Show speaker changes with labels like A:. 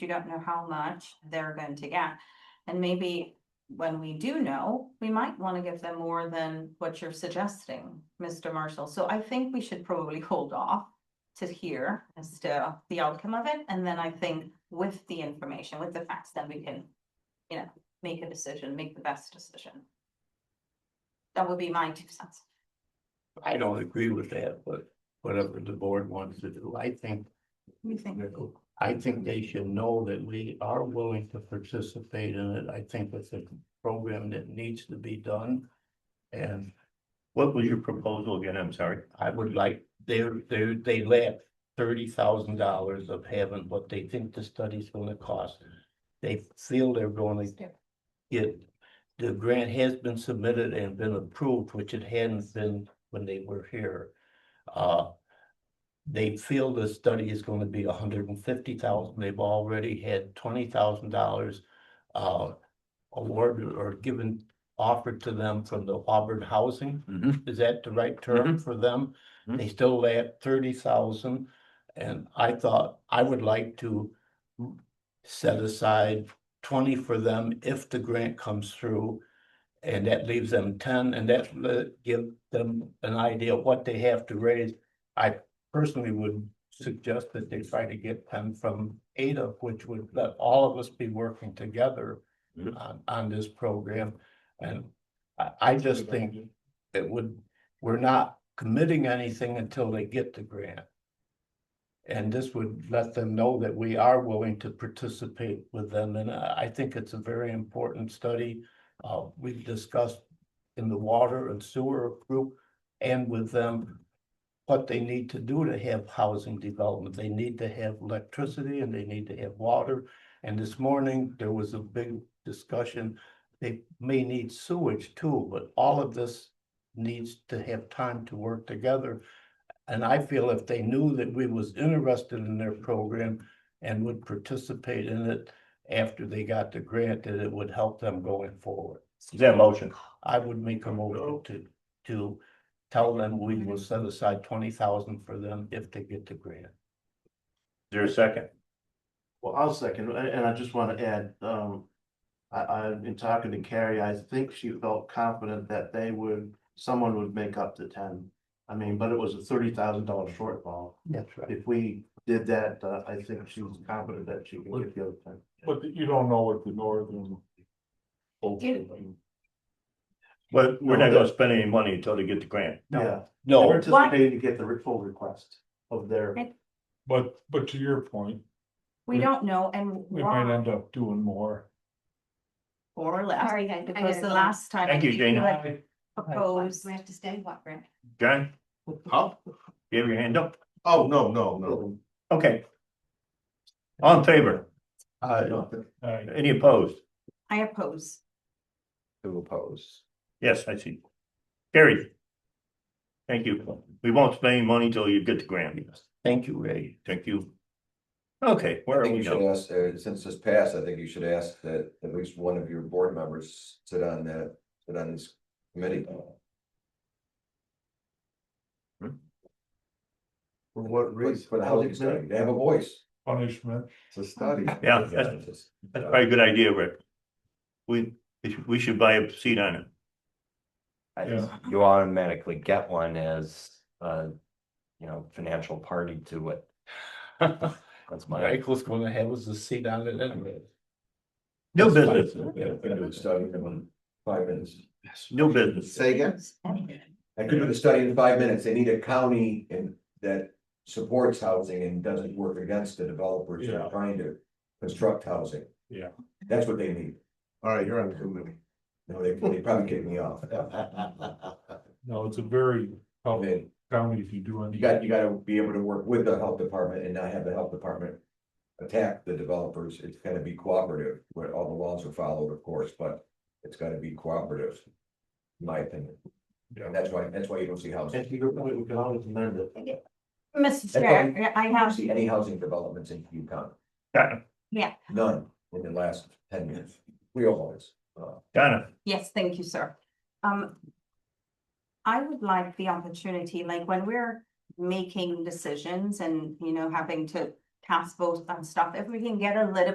A: you don't know how much they're going to get. And maybe when we do know, we might want to give them more than what you're suggesting, Mr. Marshall. So I think we should probably hold off to hear as to the outcome of it. And then I think with the information, with the facts, then we can, you know, make a decision, make the best decision. That would be my two cents.
B: I don't agree with that, but whatever the board wants to do, I think,
A: What do you think?
B: I think they should know that we are willing to participate in it. I think it's a program that needs to be done. And
C: What was your proposal again? I'm sorry.
B: I would like, they, they, they lack thirty thousand dollars of having what they think the study's gonna cost. They feel they're gonna get, the grant has been submitted and been approved, which it hadn't been when they were here. Uh, they feel the study is gonna be $150,000. hundred and fifty thousand, they've already had twenty thousand dollars uh, awarded or given, offered to them from the Auburn Housing is that the right term for them?
C: Mhm.
B: They still lay at thirty thousand, and I thought I would like to set aside twenty for them if the grant comes through. And that leaves them ten, and that le- give them an idea of what they have to raise. I personally would suggest that they try to get ten from Ada, which would let all of us be working together
C: Mhm.
B: on, on this program. And I, I just think it would, we're not committing anything until they get the grant. And this would let them know that we are willing to participate with them, and I, I think it's a very important study. Uh, we've discussed in the water and sewer group and with them. What they need to do to have housing development, they need to have electricity and they need to have water. And this morning, there was a big discussion, they may need sewage too, but all of this needs to have time to work together. And I feel if they knew that we was interested in their program and would participate in it after they got the grant, that it would help them going forward.
C: Is that a motion?
B: I would make a motion to, to tell them we will set aside twenty thousand for them if they get the grant.
C: Is there a second?
D: Well, I'll second, and, and I just want to add, um, I, I, in talking to Carrie, I think she felt confident that they would, someone would make up the ten. I mean, but it was a thirty thousand dollar shortfall.
B: That's right.
D: If we did that, uh, I think she was confident that she can get the other ten.
E: But you don't know what the northern.
C: But we're not gonna spend any money until they get the grant.
D: Yeah, they're
B: No,
D: anticipating to get the re- full request of their,
E: But, but to your point,
A: We don't know and
E: we might
A: why
E: end up doing more.
A: or less,
F: Sorry, guys. I
A: because
F: gotta
A: the
F: go.
A: last time. I
C: Thank you,
A: think
C: Dana.
A: had Proposed.
F: Do I have to stay, what, Brent?
C: John? Huh? You have your hand up?
D: oh, no, no, no.
C: Okay. All in favor?
B: uh,
E: I
C: Any opposed?
A: I oppose.
C: Who opposed? Yes, I see. Carried. Thank you. We won't spend any money till you get the grant.
B: thank you, Ray.
C: Thank you. Okay, where
G: I
C: are
G: think
C: we
G: you should
C: now?
G: ask, uh, since this passed, I think you should ask that at least one of your board members sit on that, sit on this committee.
D: For what
G: Please, for the housing study, they have a voice.
E: punishment.
G: It's a study.
C: Yeah, that's- That's probably a good idea, Rick. We, we should- we should buy a seat on it.
H: I
E: Yeah.
H: just, you automatically get one as, uh, you know, financial party to it. That's my,
B: Michael's gonna have us a seat on it anyway.
C: New business,
G: Yeah, I could do the study in five minutes.
C: new business.
G: Say again? I could do the study in five minutes. They need a county and that supports housing and doesn't work against the developers that
E: Yeah.
G: are trying to construct housing.
E: Yeah.
G: That's what they need.
D: All right, you're on the committee.
G: No, they, they probably kicked me off.
E: No, it's a very
G: I
E: tough
G: mean,
E: county if you do any.
G: You got, you gotta be able to work with the health department and not have the health department. Attack the developers, it's gotta be cooperative, where all the laws are followed, of course, but it's gotta be cooperative. in My opinion, and
E: Yeah.
G: that's why, that's why you don't see housing,
D: And to your point, we can always amend it.
A: Mr.
G: That's
A: Chair, I
G: you don't
A: have,
G: see any housing developments in Hugh County,
C: Donna,
A: yeah,
G: none in the last ten years, real ones. Uh,
C: Donna,
A: yes, thank you, sir. Um. I would like the opportunity, like when we're making decisions and, you know, having to pass votes on stuff, if we can get a little